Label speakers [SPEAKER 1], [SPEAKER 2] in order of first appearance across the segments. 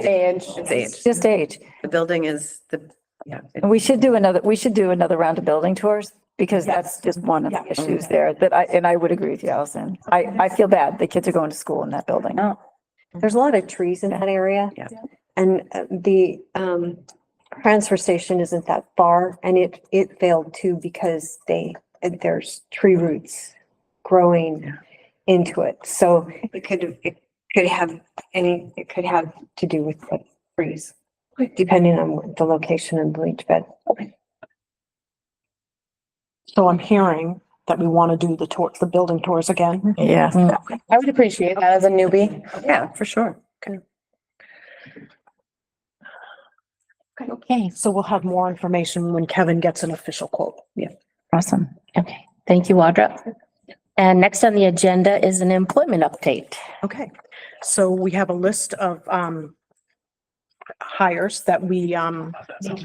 [SPEAKER 1] Age.
[SPEAKER 2] It's age.
[SPEAKER 3] just age.
[SPEAKER 2] The building is the, yeah. it-
[SPEAKER 3] And we should do another, we should do another round of building tours because that's just one of the issues there that I, and I would agree with you, Allison. I, I feel bad. The kids are going to school in that building.
[SPEAKER 4] Oh. There's a lot of trees in that area.
[SPEAKER 2] Yeah.
[SPEAKER 4] And uh, the um transfer station isn't that far and it it failed too because they, there's tree roots growing into it. So it could, it could have any, it could have to do with the trees, depending on the location and bleach bed.
[SPEAKER 5] So I'm hearing that we want to do the tour, the building tours again.
[SPEAKER 3] Yeah.
[SPEAKER 1] I would appreciate that as a newbie.
[SPEAKER 2] Yeah, for sure.
[SPEAKER 6] Okay,
[SPEAKER 5] So we'll have more information when Kevin gets an official quote.
[SPEAKER 6] awesome. Okay, thank you, Audra. And next on the agenda is an employment update.
[SPEAKER 5] Okay, so we have a list of um hires that we um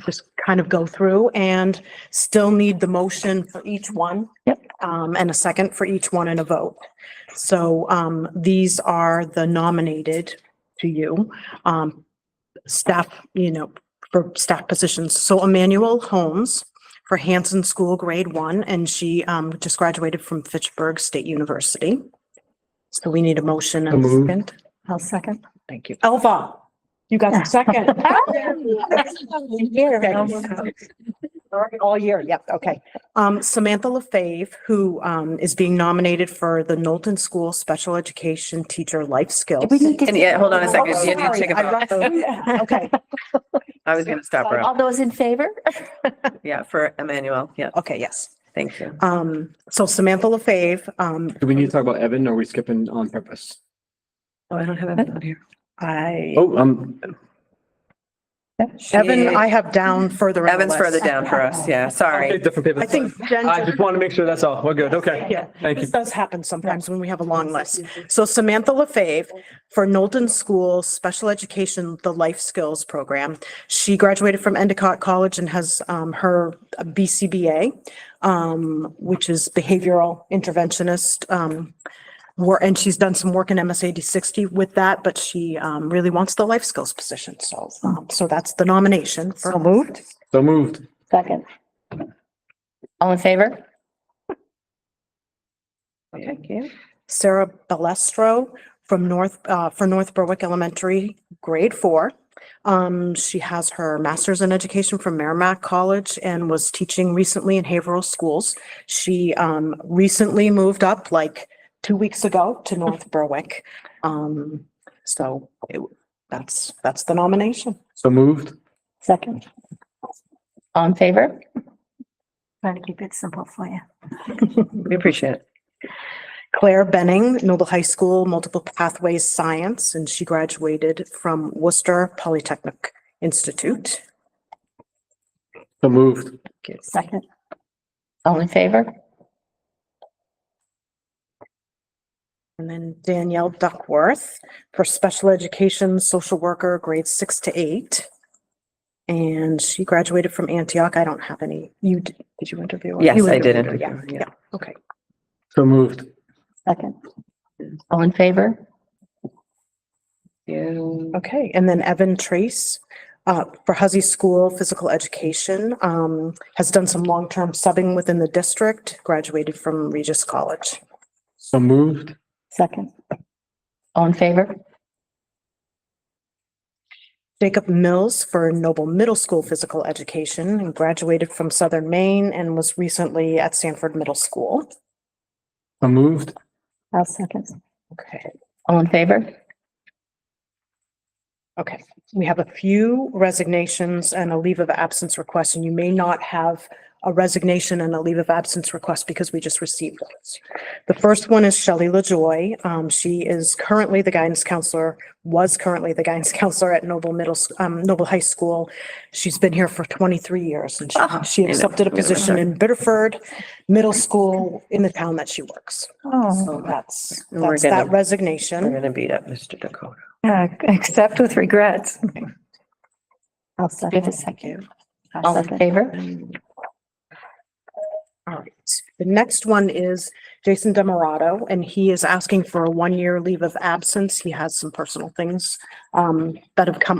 [SPEAKER 5] just kind of go through and still need the motion for each one.
[SPEAKER 6] Yep.
[SPEAKER 5] Um, and a second for each one and a vote. So um these are the nominated to you, um staff, you know, for staff positions. So Emmanuel Holmes for Hanson School Grade One, and she um just graduated from Fitchburg State University. So we need a motion and a
[SPEAKER 7] So moved.
[SPEAKER 5] second.
[SPEAKER 4] I'll second.
[SPEAKER 5] Thank you. Elva, you got the second. Okay. All year, yep, okay. Um, Samantha LaFave, who, um, is being nominated for the Knowlton School Special Education Teacher Life Skills.
[SPEAKER 3] We need
[SPEAKER 2] And yeah, hold on a second.
[SPEAKER 5] Oh,
[SPEAKER 2] You need to take
[SPEAKER 5] sorry,
[SPEAKER 2] a
[SPEAKER 5] I
[SPEAKER 2] vote.
[SPEAKER 5] rushed through that. Okay,
[SPEAKER 2] I was gonna stop her.
[SPEAKER 6] All those in favor?
[SPEAKER 2] Yeah, for Emmanuel. Yeah,
[SPEAKER 5] okay, yes.
[SPEAKER 2] thank you.
[SPEAKER 5] Um, so Samantha LaFave, um,
[SPEAKER 7] Do we need to talk about Evan or are we skipping on purpose?
[SPEAKER 2] Oh, I don't have Evan on here.
[SPEAKER 5] I,
[SPEAKER 7] Oh, um,
[SPEAKER 5] Evan, I have down further. in the
[SPEAKER 2] Evan's
[SPEAKER 5] list.
[SPEAKER 2] further down Uh, for us. Yeah,
[SPEAKER 7] okay,
[SPEAKER 2] sorry.
[SPEAKER 7] different paper.
[SPEAKER 5] I
[SPEAKER 7] that's fine.
[SPEAKER 5] think Jen.
[SPEAKER 7] I just want to make sure that's all. We're good. Okay.
[SPEAKER 5] Yeah.
[SPEAKER 7] Thank you.
[SPEAKER 5] This does happen sometimes when we have a long list. So Samantha LaFave for Knowlton School Special Education, the Life Skills Program. She graduated from Endicott College and has um, her BCBA, um, which is Behavioral Interventionist. um, wor- And she's done some work in MSA D sixty with that, but she um, really wants the life skills position. So, um, so that's the nomination. for-
[SPEAKER 3] So moved?
[SPEAKER 7] So moved.
[SPEAKER 6] Second. All in favor?
[SPEAKER 2] Thank you.
[SPEAKER 5] Sarah Balestro from North, uh, for North Berwick Elementary, grade four. Um, she has her master's in education from Merrimack College and was teaching recently in Haverhill Schools. She, um, recently moved up like two weeks ago to North Berwick. Um, so it- that's, that's the nomination.
[SPEAKER 7] So moved.
[SPEAKER 3] Second.
[SPEAKER 6] All in favor?
[SPEAKER 4] Trying to keep it simple for you.
[SPEAKER 2] We appreciate it.
[SPEAKER 5] Claire Benning, Noble High School, Multiple Pathways Science, and she graduated from Worcester Polytechnic Institute.
[SPEAKER 7] So moved.
[SPEAKER 3] Second.
[SPEAKER 6] All in favor?
[SPEAKER 5] And then Danielle Duckworth for special education, social worker, grades six to eight. And she graduated from Antioch. I don't have any. You, d- did you interview? her?
[SPEAKER 2] Yes,
[SPEAKER 5] You
[SPEAKER 2] I did
[SPEAKER 5] interviewed her,
[SPEAKER 2] interview her,
[SPEAKER 5] Yeah,
[SPEAKER 2] yeah.
[SPEAKER 5] yeah, okay.
[SPEAKER 7] So moved.
[SPEAKER 3] Second.
[SPEAKER 6] All in favor?
[SPEAKER 5] Okay, and then Evan Trace uh, for Huzzy School Physical Education, um, has done some long-term subbing within the district, graduated from Regis College.
[SPEAKER 7] So moved.
[SPEAKER 3] Second.
[SPEAKER 6] All in favor?
[SPEAKER 5] Jacob Mills for Noble Middle School Physical Education and graduated from Southern Maine and was recently at Sanford Middle School.
[SPEAKER 7] So moved.
[SPEAKER 3] I'll second.
[SPEAKER 5] Okay,
[SPEAKER 6] All in favor?
[SPEAKER 5] okay. We have a few resignations and a leave of absence request, and you may not have a resignation and a leave of absence request because we just received those. The first one is Shelley LaJoy. Um, she is currently the guidance counselor, was currently the guidance counselor at Noble Middle, S- um, Noble High School. She's been here for twenty-three years and she-
[SPEAKER 2] Oh,
[SPEAKER 5] she
[SPEAKER 2] I know.
[SPEAKER 5] accepted a position in Biddeford Middle School in the town that she works.
[SPEAKER 3] Oh,
[SPEAKER 5] So that's,
[SPEAKER 2] And we're
[SPEAKER 5] that's that
[SPEAKER 2] gonna-
[SPEAKER 5] resignation.
[SPEAKER 2] We're gonna beat up Mr. Dakota.
[SPEAKER 3] yeah, except with regrets. I'll
[SPEAKER 6] We have
[SPEAKER 3] second.
[SPEAKER 6] a second.
[SPEAKER 3] I'll
[SPEAKER 6] All in
[SPEAKER 3] second.
[SPEAKER 6] favor?
[SPEAKER 5] All right. The next one is Jason Demorato, and he is asking for a one-year leave of absence. He has some personal things um, that have come